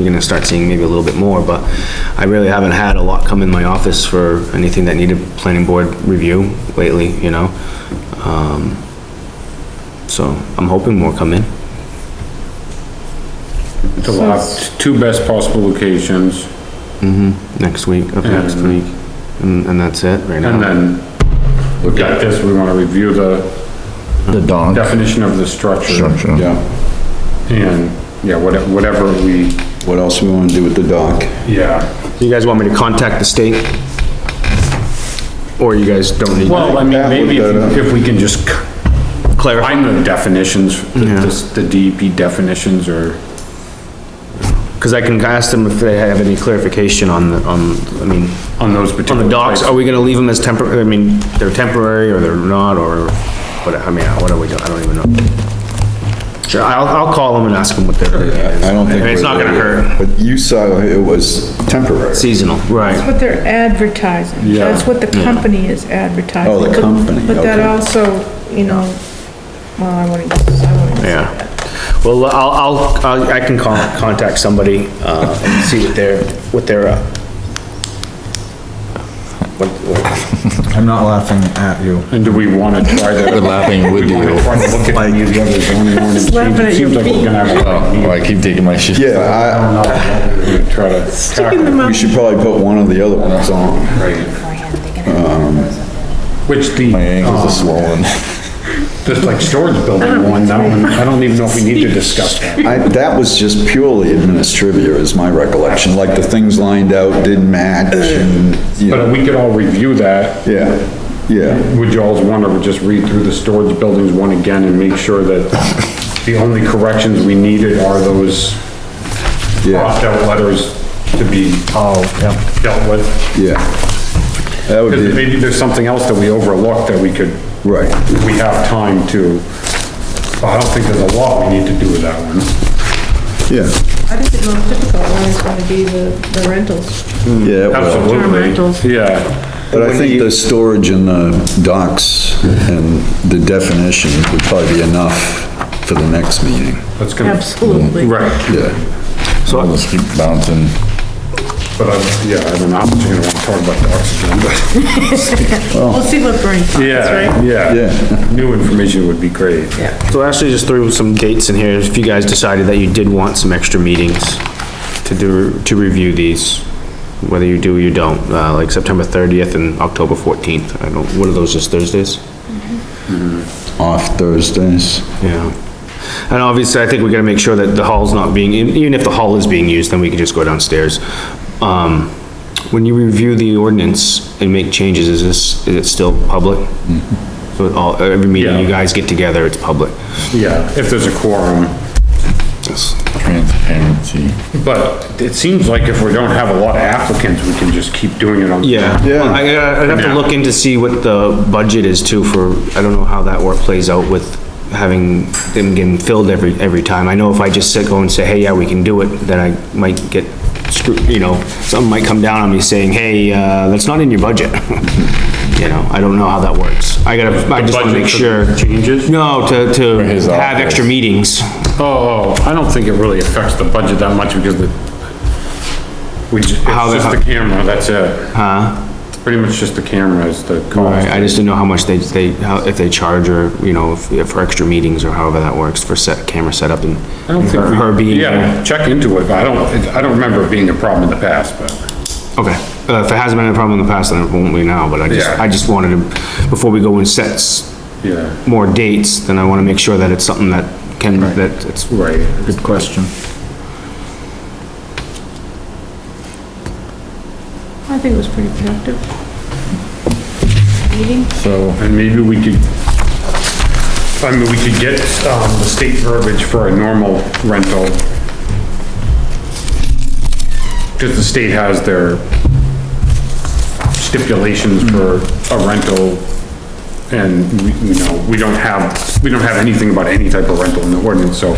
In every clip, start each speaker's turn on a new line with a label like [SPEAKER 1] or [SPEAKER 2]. [SPEAKER 1] You're gonna start seeing maybe a little bit more, but I really haven't had a lot come in my office for anything that needed planning board review lately, you know? Um, So I'm hoping more come in.
[SPEAKER 2] The lot, two best possible locations,
[SPEAKER 1] next week, up next
[SPEAKER 2] And-
[SPEAKER 1] week, and, and that's it right now.
[SPEAKER 2] and then we got this, we wanna review the
[SPEAKER 3] The dog.
[SPEAKER 2] definition of the structure.
[SPEAKER 3] Structure.
[SPEAKER 4] Yeah,
[SPEAKER 2] And, yeah, whate- whatever we,
[SPEAKER 4] what else we wanna do with the dock?
[SPEAKER 2] yeah.
[SPEAKER 1] You guys want me to contact the state? Or you guys don't need
[SPEAKER 2] Well, I mean,
[SPEAKER 4] That
[SPEAKER 2] maybe if,
[SPEAKER 4] would,
[SPEAKER 2] you- if we can just c-
[SPEAKER 1] clarify?
[SPEAKER 2] find the definitions, the-
[SPEAKER 1] Yeah.
[SPEAKER 2] the DEP definitions or,
[SPEAKER 1] Cause I can ask them if they have any clarification on, the on, I mean,
[SPEAKER 2] on those
[SPEAKER 1] on
[SPEAKER 2] particular.
[SPEAKER 1] the docks,
[SPEAKER 2] places.
[SPEAKER 1] are we gonna leave them as temporary, I mean, they're temporary or they're not, or what, I mean, what are we doing? I don't even know. Sure, I'll, I'll call them and ask them what their.
[SPEAKER 4] I don't think.
[SPEAKER 1] And it's
[SPEAKER 4] we're-
[SPEAKER 1] not gonna hurt.
[SPEAKER 4] But you saw it was temporary.
[SPEAKER 1] Seasonal, right.
[SPEAKER 5] That's what they're advertising.
[SPEAKER 2] Yeah.
[SPEAKER 5] That's what the company is advertising.
[SPEAKER 4] Oh, the
[SPEAKER 5] But-
[SPEAKER 4] company,
[SPEAKER 5] But that
[SPEAKER 4] okay.
[SPEAKER 5] also, you know, well, I wouldn't, I wouldn't. say
[SPEAKER 1] Yeah.
[SPEAKER 5] that.
[SPEAKER 1] Well, I'll, I'll- I'll, I can con- contact somebody, uh, and see what their, what their, uh, what, what,
[SPEAKER 6] I'm not laughing at you.
[SPEAKER 2] And do we wanna try the?
[SPEAKER 3] We're laughing with
[SPEAKER 2] we wanna
[SPEAKER 3] you.
[SPEAKER 2] try to look at any of the other zoning ordinance
[SPEAKER 5] laughing
[SPEAKER 2] changes? It
[SPEAKER 5] at your
[SPEAKER 2] Seems like we're gonna have a
[SPEAKER 3] Oh, I keep taking my shit.
[SPEAKER 4] Yeah, I,
[SPEAKER 2] We're gonna Try to.
[SPEAKER 5] Sticking them
[SPEAKER 4] we
[SPEAKER 5] out.
[SPEAKER 4] should probably put one of the other ones on.
[SPEAKER 2] Which the.
[SPEAKER 3] My ankles are
[SPEAKER 2] um,
[SPEAKER 3] swollen.
[SPEAKER 2] Just like storage building one, that one, I don't even know if we need to discuss that.
[SPEAKER 4] I, that was just purely administrivia is my recollection, like the things lined out didn't match and, you
[SPEAKER 2] But
[SPEAKER 4] know,
[SPEAKER 2] we could all review that.
[SPEAKER 4] yeah, yeah.
[SPEAKER 2] Would you alls want to just read through the storage buildings one again and make sure that the only corrections we needed are those
[SPEAKER 4] Yeah.
[SPEAKER 2] crossed out letters to be
[SPEAKER 6] Oh, yeah.
[SPEAKER 2] dealt with?
[SPEAKER 4] Yeah. That would
[SPEAKER 2] Because
[SPEAKER 4] be,
[SPEAKER 2] maybe there's something else that we overlooked that we could,
[SPEAKER 4] right,
[SPEAKER 2] we have time to, I don't think there's a lot we need to do with that one.
[SPEAKER 4] yeah,
[SPEAKER 5] I think the most difficult one is gonna be the, the rentals.
[SPEAKER 4] yeah. it will.
[SPEAKER 5] Environmentals.
[SPEAKER 2] Absolutely, yeah.
[SPEAKER 4] But I think the storage in the docks and the definition would probably be enough for the next meeting.
[SPEAKER 2] That's gonna,
[SPEAKER 5] Absolutely.
[SPEAKER 2] Mm. right.
[SPEAKER 4] Yeah,
[SPEAKER 3] So let's keep bouncing.
[SPEAKER 2] But I, yeah, I don't know, I'm just gonna wanna talk about the oxygen, but.
[SPEAKER 5] We'll see what Bernie finds, right?
[SPEAKER 2] Yeah,
[SPEAKER 4] yeah.
[SPEAKER 2] new information would be great.
[SPEAKER 1] so Ashley just threw some dates in here, if you guys decided that you did want some extra meetings to do, to review these, whether you do or you don't, uh, like September thirtieth and October fourteenth, I don't, what are those, just Thursdays?
[SPEAKER 4] Off Thursdays.
[SPEAKER 1] Yeah. And obviously, I think we gotta make sure that the hall's not being, e, even if the hall is being used, then we can just go downstairs. Um, when you review the ordinance and make changes, is this, is it still public? So all, every meeting you
[SPEAKER 2] Yeah.
[SPEAKER 1] guys get together, it's public.
[SPEAKER 2] Yeah, if there's a quorum,
[SPEAKER 3] Transparency.
[SPEAKER 2] but it seems like if we don't have a lot of applicants, we can just keep doing it on.
[SPEAKER 1] Yeah.
[SPEAKER 4] Yeah.
[SPEAKER 1] I, I'd have to look in to see what the budget is too for, I don't know how that work plays out with having them getting filled every, every time. I know if I just sit, go and say, hey, yeah, we can do it, then I might get screwed, you know, something might come down on me saying, hey, uh, that's not in your budget. You know, I don't know how that works. I gotta, I just wanna
[SPEAKER 2] budget
[SPEAKER 1] make
[SPEAKER 2] for
[SPEAKER 1] sure.
[SPEAKER 2] changes?
[SPEAKER 1] No, to, to
[SPEAKER 3] his
[SPEAKER 1] have
[SPEAKER 3] office.
[SPEAKER 1] extra meetings.
[SPEAKER 2] Oh, oh, I don't think it really affects the budget that much because the, we, ju- it's
[SPEAKER 1] How
[SPEAKER 2] just
[SPEAKER 1] the-
[SPEAKER 2] the camera, that's it.
[SPEAKER 1] Huh?
[SPEAKER 2] It's pretty much just the camera is the
[SPEAKER 1] Alright,
[SPEAKER 2] cost.
[SPEAKER 1] I just didn't know how much they, they, how, if they charge or, you know, if, if for extra meetings or however that works for set, camera setup and
[SPEAKER 2] I don't think
[SPEAKER 1] her-
[SPEAKER 2] we-
[SPEAKER 1] her being there.
[SPEAKER 2] Yeah, check into it, but I don't, it- I don't remember it being a problem in the past, but
[SPEAKER 1] Okay, uh, if it hasn't been a problem in the past, then it won't be now, but I just,
[SPEAKER 2] Yeah.
[SPEAKER 1] I just wanted to, before we go and set s-
[SPEAKER 2] yeah,
[SPEAKER 1] more dates, then I wanna make sure that it's something that can, that it's,
[SPEAKER 2] right.
[SPEAKER 6] Good question.
[SPEAKER 5] I think it was pretty productive. Meeting,
[SPEAKER 3] So
[SPEAKER 2] And maybe we could, I mean, we could get, um, the state verbiage for a normal rental. Cause the state has their stipulations for a rental. And we, you know, we don't have, we don't have anything about any type of rental in the ordinance, so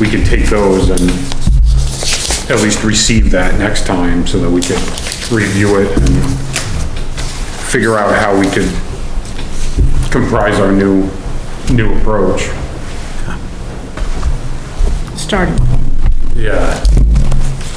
[SPEAKER 2] we could take those and at least receive that next time so that we could review it and figure out how we could comprise our new, new approach.
[SPEAKER 5] starting.
[SPEAKER 2] Yeah.